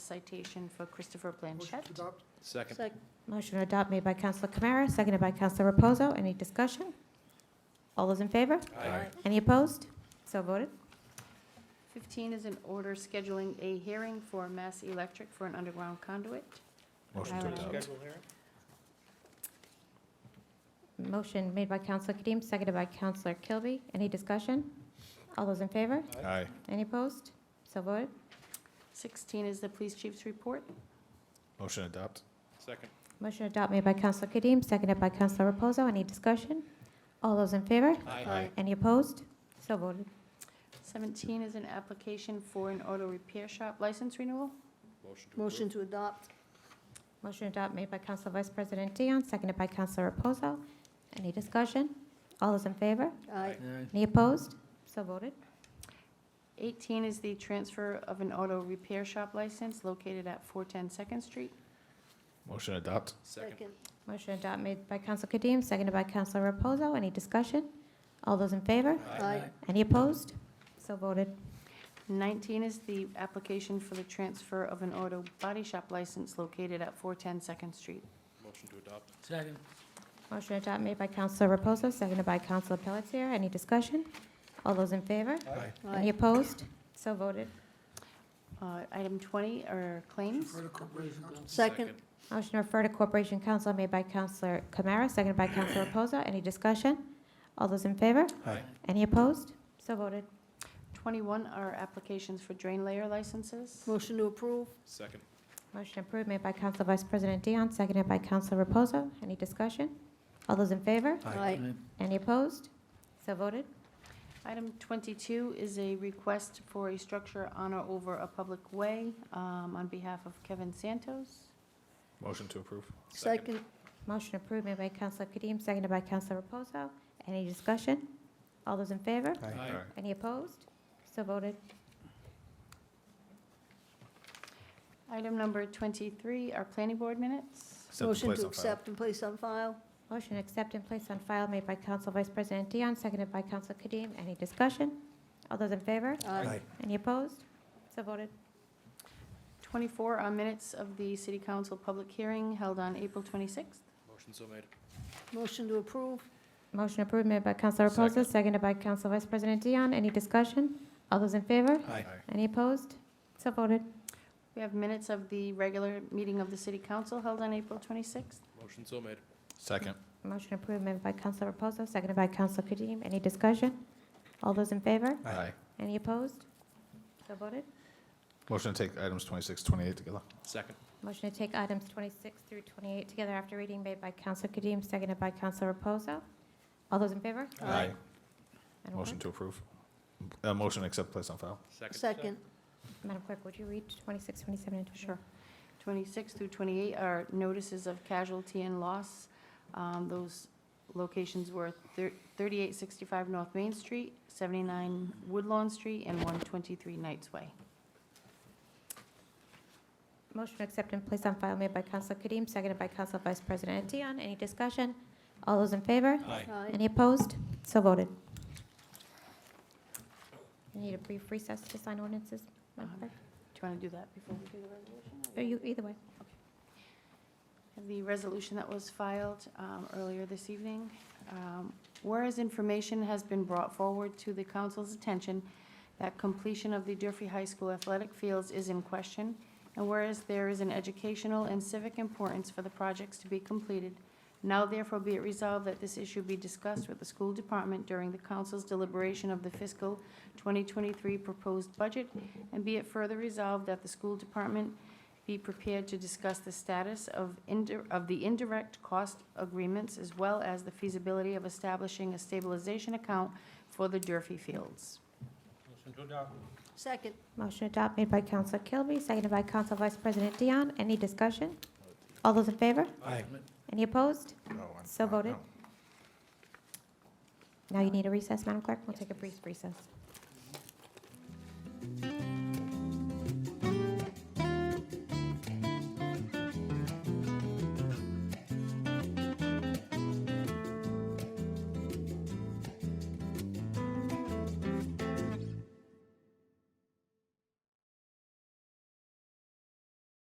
citation for Christopher Blanchett. Second. Motion to adopt made by Counselor Kamara, seconded by Counselor Reposo. Any discussion? All those in favor? Aye. Any opposed? So voted. 15 is an order scheduling a hearing for Mass Electric for an underground conduit. Motion I to will- adopt. Motion made by Counselor Kadeem, seconded by Counselor Kilby. Any discussion? All those in favor? Aye. Any opposed? So voted. 16 is the police chief's report. Motion adopt. Second. Motion to adopt made by Counselor Kadeem, seconded by Counselor Reposo. Any discussion? All those in favor? Aye. Any opposed? So voted. 17 is an application for an auto repair shop license renewal. Motion Motion to adopt. Motion to adopt made by Counselor Vice President Dion, seconded by Counselor Reposo. Any discussion? All those in favor? Aye. Any opposed? So voted. 18 is the transfer of an auto repair shop license located at 410 Second Street. Motion adopt. to approve. Second. Motion to adopt made by Counsel Kadeem, seconded by Counsel Reposo. Any discussion? All those in favor? Aye. Any opposed? So voted. 19 is the application for the transfer of an auto body shop license located at 410 Second Street. Motion to adopt. Second. Motion to adopt made by Counsel Reposo, seconded by Counsel Pelletier. Any discussion? All those in favor? Aye. Any Aye. opposed? So voted. Uh, Item 20 are claims. Second. Motion to refer to Corporation Council made by Counsel Kamara, seconded by Counsel Reposo. Any discussion? All those in favor? Aye. Any opposed? So voted. 21 are applications for drain layer licenses. Motion to approve. Second. Motion approved made by Counsel Vice President Dion, seconded by Counsel Reposo. Any discussion? All those in favor? Aye. Any opposed? So voted. Item 22 is a request for a structure on or over a public way um, on behalf of Kevin Santos. Motion to approve. Second. Motion approved made by Counsel Kadeem, seconded by Counsel Reposo. Any discussion? All those in favor? Aye. Any opposed? So voted. Item number 23 are planning board minutes. Accept and Motion place to on file. accept and place on file. Motion accept and place on file made by Counsel Vice President Dion, seconded by Counsel Kadeem. Any discussion? All those in favor? Aye. Any opposed? So voted. 24 are minutes of the city council public hearing held on April 26th. Motion so made. Motion to approve. Motion approved made by Counsel Reposo, Second. seconded by Counsel Vice President Dion. Any discussion? All those in favor? Aye. Any opposed? So voted. We have minutes of the regular meeting of the city council held on April 26th. Motion so made. Second. Motion approved made by Counsel Reposo, seconded by Counsel Kadeem. Any discussion? All those in favor? Aye. Any opposed? So voted. Motion to take items 26, 28 together. Second. Motion to take items 26 through 28 together after reading made by Counsel Kadeem, seconded by Counsel Reposo. All those in favor? Aye. Madam Motion Clerk- to approve. Uh, motion to accept place on file. Second. Second. Madam Clerk, would you read 26, 27, and 28? Sure. 26 through 28 are notices of casualty and loss. Um, Those locations were thir- 3865 North Main Street, 79 Woodlawn Street, and 123 Knights Way. Motion to accept and place on file made by Counsel Kadeem, seconded by Counsel Vice President Dion. Any discussion? All those in favor? Aye. Aye. Any opposed? So voted. We Need a brief recess to sign ordinances, Madam Clerk? Do you want to do that before we do the resolution? Or you, either way. the resolution that was filed um, earlier this evening. Um, Whereas information has been brought forward to the council's attention that completion of the Durfee High School athletic fields is in question, and whereas there is an educational and civic importance for the projects to be completed, now therefore be it resolved that this issue be discussed with the school department during the council's deliberation of the fiscal 2023 proposed budget, and be it further resolved that the school department be prepared to discuss the status of indi- of the indirect cost agreements as well as the feasibility of establishing a stabilization account for the Durfee Fields. Motion to adopt. Second. Motion adopted made by Counsel Kilby, seconded by Counsel Vice President Dion. Any discussion? All those in favor? Aye. Any opposed? No, I'm- So no, voted. no. Now you need a recess, Madam Clerk. We'll take a brief recess.